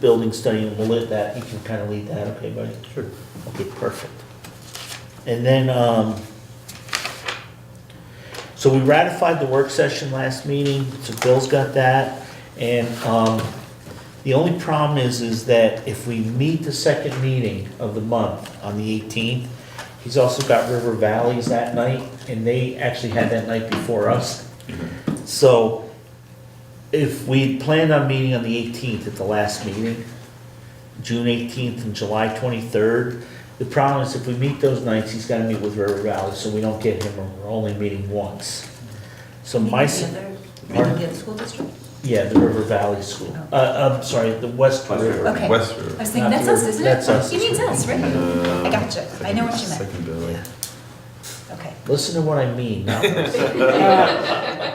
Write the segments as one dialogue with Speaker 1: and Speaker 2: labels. Speaker 1: building study, and we'll let that, you can kind of lead that, okay, buddy? Sure. Okay, perfect. And then, um, so we ratified the work session last meeting, so Bill's got that. And, um, the only problem is, is that if we meet the second meeting of the month on the eighteenth, he's also got River Valleys that night, and they actually had that night before us. Mm-hmm. So, if we planned on meeting on the 18th at the last meeting, June 18th and July 23rd, the problem is if we meet those nights, he's gotta meet with River Valley, so we don't get him, and we're only meeting once. So my, s-
Speaker 2: The other, the other school district?
Speaker 1: yeah, the River Valley School,
Speaker 2: Oh.
Speaker 1: uh, I'm sorry, the West
Speaker 3: West
Speaker 1: River.
Speaker 3: River.
Speaker 2: Okay.
Speaker 3: West
Speaker 2: I
Speaker 3: River.
Speaker 2: was thinking,
Speaker 1: Not
Speaker 2: that's
Speaker 1: the-
Speaker 2: us, isn't it?
Speaker 1: that's us.
Speaker 2: He means us, right? I gotcha. I know what you meant.
Speaker 3: Secondary.
Speaker 2: Okay.
Speaker 1: Listen to what I mean, not what I say.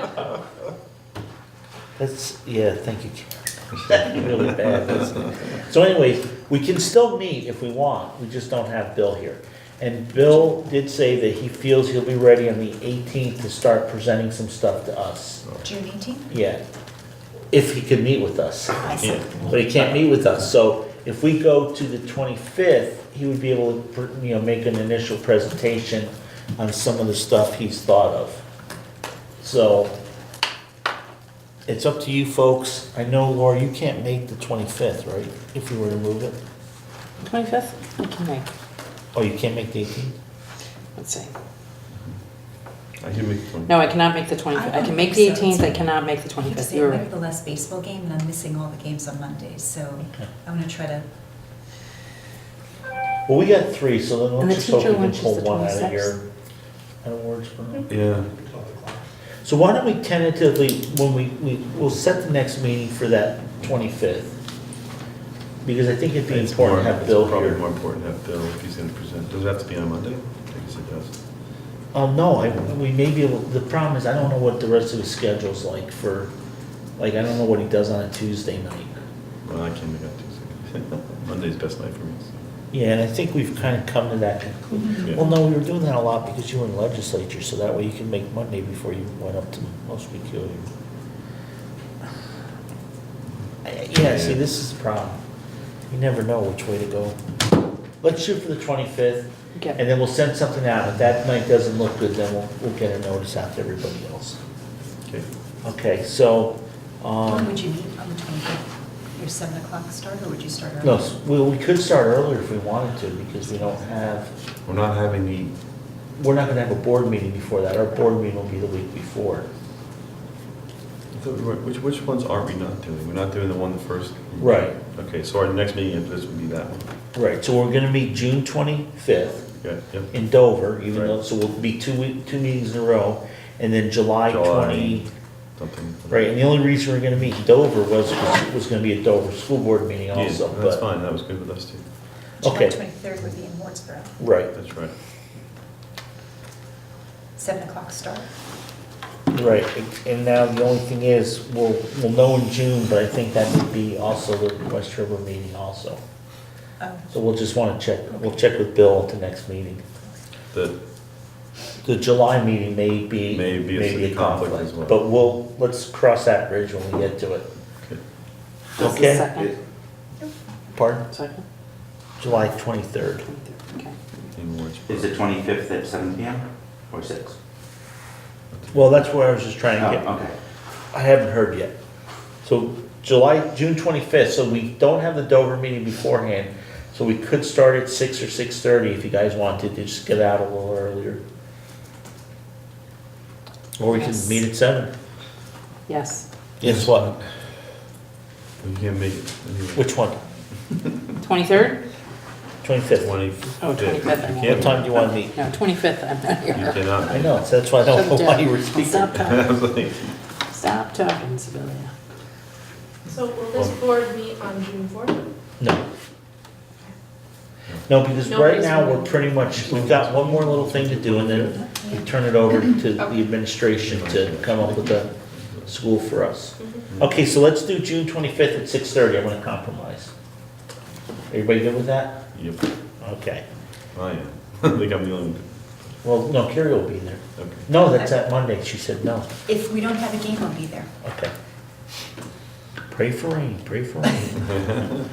Speaker 1: That's, yeah, thank you, Karen. That's really bad, isn't it? So anyways, we can still meet if we want, we just don't have Bill here. And Bill did say that he feels he'll be ready on the 18th to start presenting some stuff to us.
Speaker 2: June 18th?
Speaker 1: Yeah, if he can meet with us,
Speaker 2: I see.
Speaker 1: but he can't meet with us. So if we go to the 25th, he would be able to, you know, make an initial presentation on some of the stuff he's thought of. So it's up to you folks. I know, Laura, you can't make the 25th, right? If we were to move it?
Speaker 4: 25th? I can make,
Speaker 1: Oh, you can't make the 18th?
Speaker 4: let's see.
Speaker 3: I can make one.
Speaker 4: No, I cannot make the 25th. I can make the
Speaker 2: I don't think
Speaker 4: 18th,
Speaker 2: so.
Speaker 4: I cannot make the
Speaker 2: I keep
Speaker 4: 25th.
Speaker 2: saying,
Speaker 4: You're
Speaker 2: we
Speaker 4: right.
Speaker 2: have the last baseball game, and I'm missing all the games on Mondays, so
Speaker 1: Okay.
Speaker 2: I'm gonna try to,
Speaker 1: Well, we got three, so then
Speaker 4: And
Speaker 1: let's
Speaker 4: the
Speaker 1: just hope
Speaker 4: teacher
Speaker 1: we can
Speaker 4: lunch is
Speaker 1: pull
Speaker 4: the
Speaker 1: one out of
Speaker 4: 26th.
Speaker 1: your, out of Wordsboro.
Speaker 3: Yeah,
Speaker 1: So why don't we tentatively, when we, we, we'll set the next meeting for that twenty-fifth? Because I think it'd be
Speaker 3: it's
Speaker 1: important
Speaker 3: more,
Speaker 1: to have
Speaker 3: it's
Speaker 1: Bill
Speaker 3: probably
Speaker 1: here.
Speaker 3: more important to have Bill if he's gonna present. Does it have to be on Monday? I guess it does.
Speaker 1: Um, no, I, we may be able, the problem is, I don't know what the rest of his schedule's like for, like, I don't know what he does on a Tuesday night.
Speaker 3: Well, I can make up Tuesday. Monday's best night for me. so.
Speaker 1: Yeah, and I think we've kind of come to that conclusion.
Speaker 3: Yeah.
Speaker 1: Well, no, we were doing that a lot because you were in legislature, so that way you can make Monday before you went up to most week. you- I- Yeah, see, this is the problem. You never know which way to go. Let's shoot for the twenty-fifth, and
Speaker 4: Okay.
Speaker 1: then we'll send something out. If that night doesn't look good, then we'll, we'll get a notice out to everybody else.
Speaker 3: Okay.
Speaker 1: Okay, so,
Speaker 2: when
Speaker 1: um,
Speaker 2: would you meet on the 25th? Your 7 o'clock start, or would you start early?
Speaker 1: no, s- well, we could start earlier if we wanted to, because we don't have
Speaker 3: We're not having the,
Speaker 1: We're not gonna have a board meeting before that, our board meeting will be the week before.
Speaker 3: I thought we were- which, which ones are we not doing? We're not doing the one the first?
Speaker 1: Right.
Speaker 3: Okay, so our next meeting after this would be that one.
Speaker 1: Right, so we're gonna meet June twenty-fifth
Speaker 3: Yeah, yep.
Speaker 1: in Dover, even though,
Speaker 3: Right.
Speaker 1: so we'll be two week, two meetings in a row, and then July
Speaker 3: July.
Speaker 1: twenty.
Speaker 3: Something.
Speaker 1: Right, and the only reason we're gonna meet in Dover was, was- was gonna be a Dover school board meeting
Speaker 3: Yeah,
Speaker 1: also,
Speaker 3: that's
Speaker 1: but,
Speaker 3: fine. That was good with us too.
Speaker 2: July
Speaker 1: okay.
Speaker 2: 23rd would be in Wardsboro,
Speaker 1: right,
Speaker 3: That's right.
Speaker 2: 7 o'clock start.
Speaker 1: right. And now the only thing is, we'll, we'll know in June, but I think that would be also the West River meeting also.
Speaker 2: Oh,
Speaker 1: So we'll just wanna check, we'll check with Bill at the next meeting.
Speaker 3: The,
Speaker 1: The July meeting may be, may
Speaker 3: May be a
Speaker 1: be a
Speaker 3: conflict
Speaker 1: conflict,
Speaker 3: as well.
Speaker 1: but we'll, let's cross that bridge when we get to it.
Speaker 4: This is
Speaker 1: Okay.
Speaker 4: Second,
Speaker 1: Pardon?
Speaker 4: second,
Speaker 1: July 23rd.
Speaker 4: 23rd, okay.
Speaker 3: in words.
Speaker 5: Is the twenty-fifth at seven PM or six?
Speaker 1: Well, that's where I was just trying to
Speaker 5: Oh,
Speaker 1: get,
Speaker 5: okay.
Speaker 1: I haven't heard yet. So July, June 25th, so we don't have the Dover meeting beforehand, so we could start at 6 or 6:30 if you guys wanted to just get out a little earlier. Or we can
Speaker 2: Yes.
Speaker 1: meet at 7.
Speaker 4: Yes,
Speaker 1: Yes, what?
Speaker 3: You can't make it anyway.
Speaker 1: Which one?
Speaker 4: 23rd?
Speaker 1: 25th?
Speaker 3: Twenty-fifth.
Speaker 4: Oh, 25th, I mean.
Speaker 3: You
Speaker 1: What time
Speaker 3: can't,
Speaker 1: do you want to meet?
Speaker 4: No, 25th, I'm not
Speaker 3: you
Speaker 4: here.
Speaker 3: cannot.
Speaker 1: I know, so that's why I don't know Oh, why you were speaking.
Speaker 4: Stop
Speaker 3: I
Speaker 4: talking,
Speaker 3: was like,
Speaker 4: stop talking, Sibylla.
Speaker 6: So will this board meet on June fourth?
Speaker 1: No. No, because right now, we're pretty much, we've got one more little thing to do, and then we turn it over to the administration to come up with a school for us. Okay, so let's do June twenty-fifth at six-thirty, I'm gonna compromise. Everybody good with that?
Speaker 3: yep,
Speaker 1: Okay,
Speaker 3: I am. I think I'm the only one.
Speaker 1: well, no, Carrie will be there.
Speaker 3: Okay.
Speaker 1: No, that's that Monday, she said no,
Speaker 2: If we don't have a game, I'll be there.
Speaker 1: okay. Pray for rain, pray for rain.